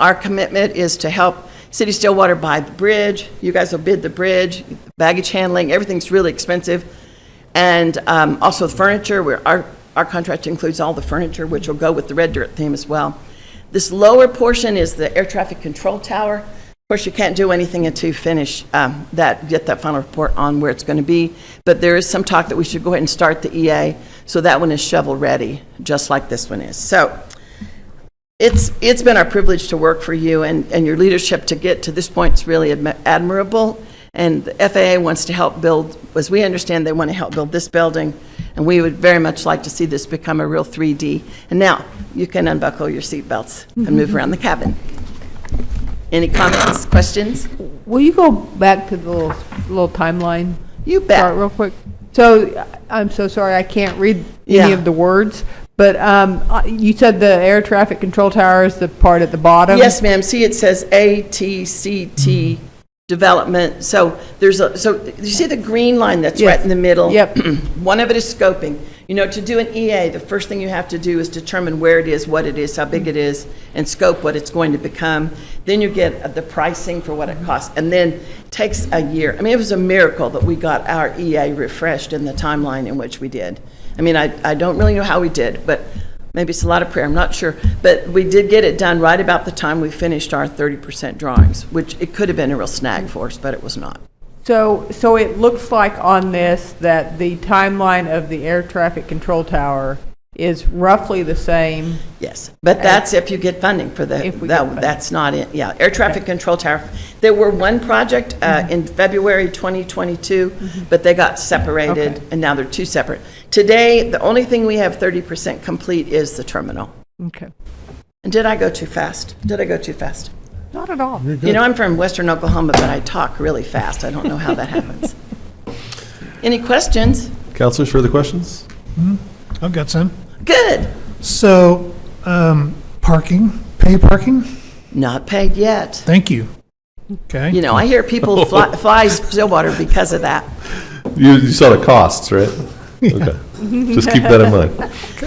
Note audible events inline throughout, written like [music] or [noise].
Our commitment is to help City of Stillwater buy the bridge. You guys will bid the bridge, baggage handling, everything's really expensive. And um, also the furniture, where our, our contract includes all the furniture, which will go with the red dirt theme as well. This lower portion is the air traffic control tower. Of course, you can't do anything until you finish um, that, get that final report on where it's going to be. But there is some talk that we should go ahead and start the EA, so that one is shovel-ready, just like this one is. So it's, it's been our privilege to work for you and, and your leadership to get to this point is really admi- admirable. And the FAA wants to help build, as we understand, they want to help build this building. And we would very much like to see this become a real 3D. And now, you can unbuckle your seatbelts and move around the cabin. Any comments, questions? Will you go back to the little, little timeline? You bet. Chart real quick. So I- I'm so sorry, I can't read Yeah. any of the words, but um, uh, you said the air traffic control tower is the part at the bottom? Yes, ma'am. See, it says ATCT Development. So there's a, so you see the green line that's right Yes. in the middle? Yep. [clears throat] One of it is scoping. You know, to do an EA, the first thing you have to do is determine where it is, what it is, how big it is, and scope what it's going to become. Then you get uh, the pricing for what it costs, and then takes a year. I mean, it was a miracle that we got our EA refreshed in the timeline in which we did. I mean, I, I don't really know how we did, but maybe it's a lot of prayer, I'm not sure. But we did get it done right about the time we finished our 30% drawings, which it could have been a real snag for us, but it was not. So, so it looks like on this that the timeline of the air traffic control tower is roughly the same. Yes, but that's if you get funding for the, If we that- get funding. that's not it, yeah. Air traffic control tower, there were one project uh, Mm-hmm. in February 2022, but they got separated, Okay. and now they're two separate. Today, the only thing we have 30% complete is the terminal. Okay. And did I go too fast? Did I go too fast? Not at all. You know, I'm from western Oklahoma, but I talk really fast, I don't know how that happens. [laughs] Any questions? Counselors, further questions? I've got some. Good, So, um, parking, pay parking? not paid yet. Thank you. Okay. You know, I hear people fly fly Stillwater because of that. You, you saw the costs, [laughs] right? Okay. Just keep that in mind.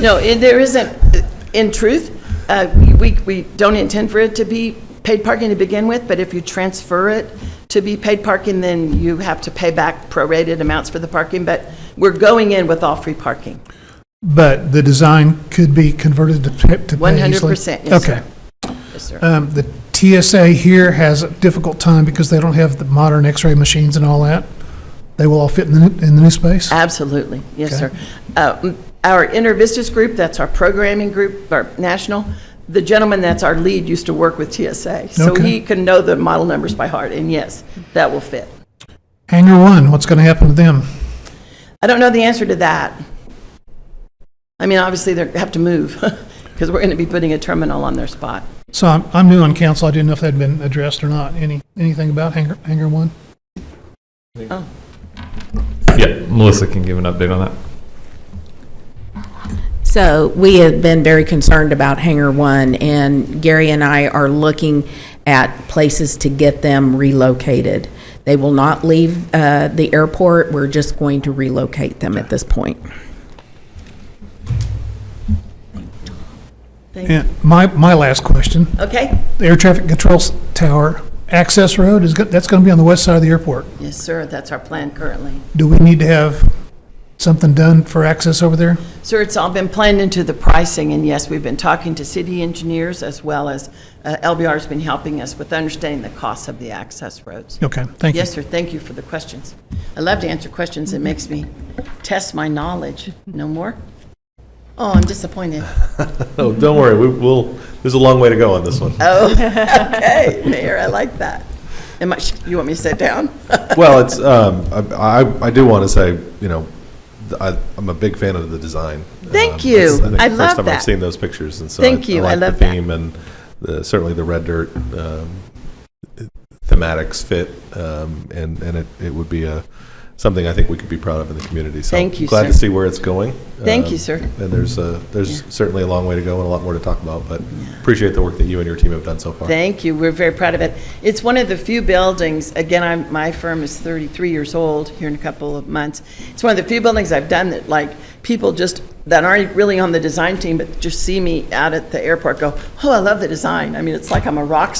No, it- there isn't, in truth, uh, we, we don't intend for it to be paid parking to begin with, but if you transfer it to be paid parking, then you have to pay back prorated amounts for the parking, but we're going in with all free parking. But the design could be converted to pay, to pay easily? 100%, yes, sir. Okay. Yes, sir. Um, the TSA here has a difficult time because they don't have the modern x-ray machines and all that. They will all fit in the, new- in the new space? Absolutely, yes, sir. Okay. Uh, m- Our InterVistas group, that's our programming group, our national, the gentleman that's our lead used to work with TSA, so Okay. he can know the model numbers by heart, and yes, that will fit. Hangar one, what's gonna happen to them? I don't know the answer to that. I mean, obviously, they have to move, [laughs] because we're going to be putting a terminal on their spot. So I'm, I'm new on council. I didn't know if that'd been addressed or not. Any, anything about hangar, hangar one? Yeah, Melissa can give an update on that. So we have been very concerned about Hangar One, and Gary and I are looking at places to get them relocated. They will not leave uh, the airport. We're just going to relocate them at this point. And my, my last question. Okay? The air traffic control s- tower access road is, go- that's going to be on the west side of the airport. Yes, sir, that's our plan currently. Do we need to have something done for access over there? Sir, it's all been planned into the pricing, and yes, we've been talking to city engineers as well as uh, LBR's been helping us with understanding the costs of the access roads. Okay, thank you. Yes, sir, thank you for the questions. I love to answer questions, it makes me test my knowledge. No more? Oh, I'm [laughs] disappointed. Oh, don't worry, we, we'll, there's a long way to go on this one. Hey, Mayor, I like that. Am I, you want me to sit down? Well, it's, um, I, I- I do want to say, you know, th- I, I'm a big fan of the design. Thank Um, you. it's- think I the love First time that. I've seen those pictures, and so. Thank you. I love like the that. theme and the- certainly the red dirt, um, thematics fit, um, and, and it, it would be a, something I think we could be proud of in the community. So Thank you, Glad to sir. see where it's going. Thank Um, you, sir. And there's, uh, there's Yeah. certainly a long way to go and a lot more to talk about, but appreciate the work that you and your team have done so far. Thank you. We're very proud of it. It's one of the few buildings, again, I'm, my firm is 33 years old here in a couple of months. It's one of the few buildings I've done that, like, people just, that aren't really on the design team, but just see me out at the airport go, oh, I love the design. I mean, it's like I'm a rock